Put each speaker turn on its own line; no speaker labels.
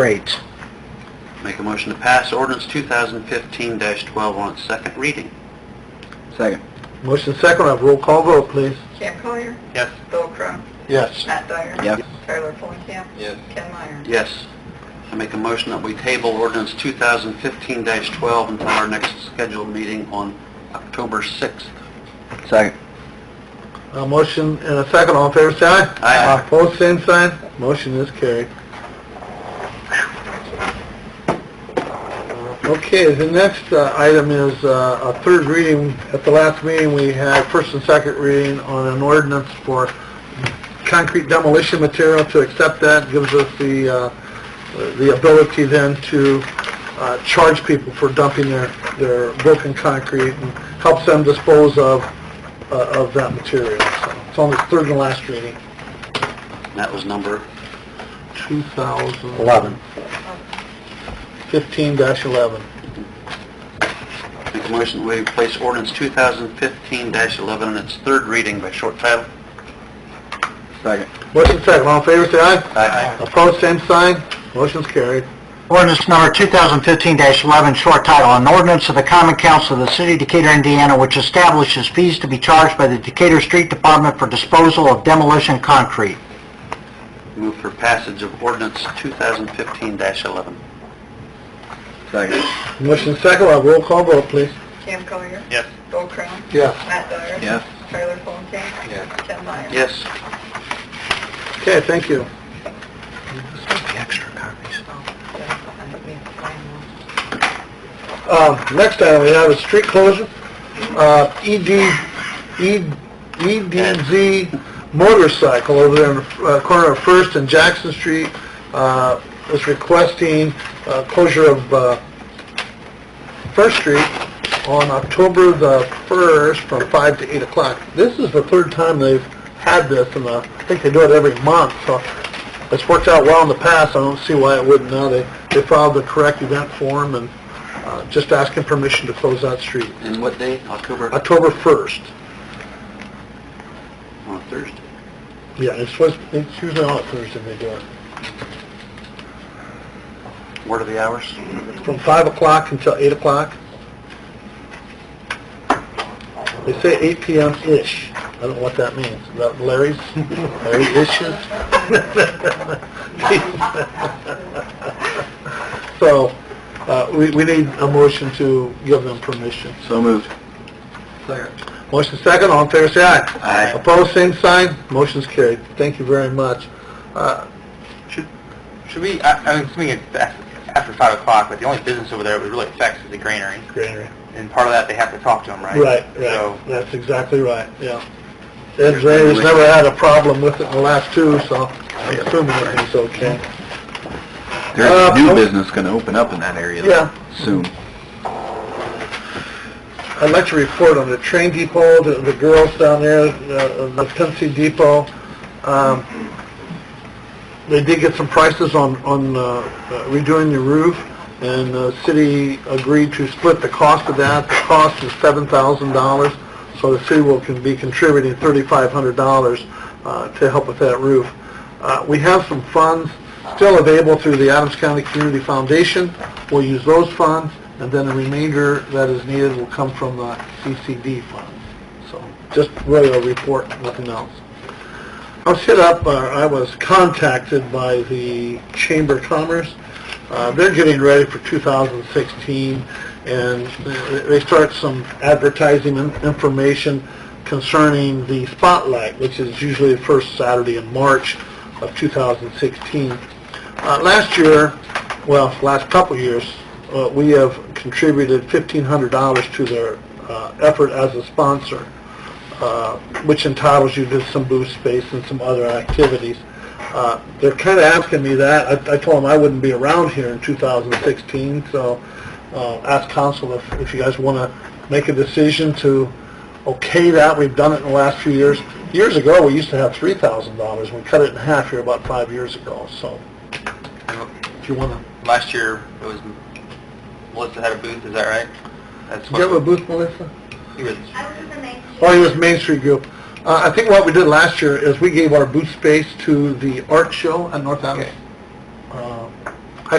Great.
Make a motion to pass ordinance 2015-12 on its second reading.
Second.
Motion second, have roll call vote, please.
Cam Collier,
Yes.
Bill Crow,
Yes.
Matt Dyer.
Yes.
Tyler Fulenkamp.
Yes.
Ken Meyer.
Yes. I make a motion that we table ordinance 2015-12 until our next scheduled meeting on October 6th.
Second.
A Uh, motion and a second, all in favor, say aye. Uh,
Aye.
Opposed, same sign, motion is carried. Okay, the next uh, item is uh, a third reading. At the last meeting, we had first and second reading on an ordinance for concrete demolition material. To accept that gives us the, uh, the ability then to uh, charge people for dumping their, their broken concrete and helps them dispose of, uh, of that material. So It's only third and last reading,
And That was number
2015-11.
11.
Make a motion that we place ordinance 2015-11 on its third reading by short title.
Second.
Motion second, all in favor, say aye.
Aye.
Opposed, same sign, motion's carried.
Ordinance number 2015-11, short title, an ordinance of the Common Council of the City of Decatur, Indiana, which establishes fees to be charged by the Decatur Street Department for disposal of demolition concrete.
Move for passage of ordinance 2015-11.
Second.
Motion second, we'll have roll call vote, please.
Cam Collier,
Yes.
Bill Crow,
Yes.
Matt Dyer.
Yes.
Tyler Fulenkamp.
Yes.
Ken Meyer.
Yes.
Okay, thank you.
Extra copies.
Oh,
Um, Next item we have is street closure. Uh, ED, E- EDZ motorcycle over there in the uh, corner of First and Jackson Street uh, is requesting uh, closure of uh, First Street on October the 1st from 5 to 8 o'clock. This is the third time they've had this, and uh, I think they do it every month, so it's worked out well in the past. I don't see why it wouldn't now. They, they filed the correct event form and uh, just asking permission to close that street.
And what day? October?
October 1st.
On Thursday.
Yeah, it's supposed, it's usually on Thursday they do it.
What are the hours?
From 5 o'clock until 8 o'clock. They say 8 PM-ish. I don't know what that means. Is that Larry's? Larry-ishes? So, uh, we, we need a motion to give them permission.
So moved.
Motion second, all in favor, say aye.
Aye.
Opposed, same sign, motion's carried. Thank you very much. Uh,
Should, should we, I, I'm assuming it's af- after five o'clock, but the only business over there it would really affects is the granary,
Granary.
and part of that, they have to talk to them, right?
Right,
So,
right, that's exactly right, yeah. And Granry's never had a problem with it in the last two, so I'm assuming everything's okay. There's a new Uh,
business going to open up in that area
Yeah.
soon.
I'd like to report on the train depot, the, the girls down there, uh, the Tennessee Depot. Um, they did get some prices on, on, uh, uh, redoing the roof, and the city agreed to split the cost of that. The cost is seven thousand dollars, so the city will can be contributing thirty-five hundred dollars, uh, to help with that roof. Uh, we have some funds still available through the Adams County Community Foundation. We'll use those funds, and then the remainder that is needed will come from the CCD funds. So, just really a report, nothing else. I was hit up, uh, I was contacted by the Chamber of Commerce. Uh, They're getting ready for 2016, and they- they start some advertising in- information concerning the Spotlight, which is usually the first Saturday in March of 2016. Uh, Last year, well, last couple of years, uh, we have contributed $1,500 to their uh, effort as a sponsor uh, which entitles you to some booth space and some other activities. Uh, They're kind of asking me that. I I told them I wouldn't be around here in 2016, so uh, ask council if if you guys want to make a decision to okay that. We've done it in the last few years. Years ago, we used to have $3,000. We cut it in half here about five years ago, so if you want to...
last year, it was, Melissa had a booth, is that right? That's what
booth, Melissa?
He was,
Oh, it was Main Street Group. Uh, I think what we did last year is we gave our booth space to the art show at North Adams.
Okay.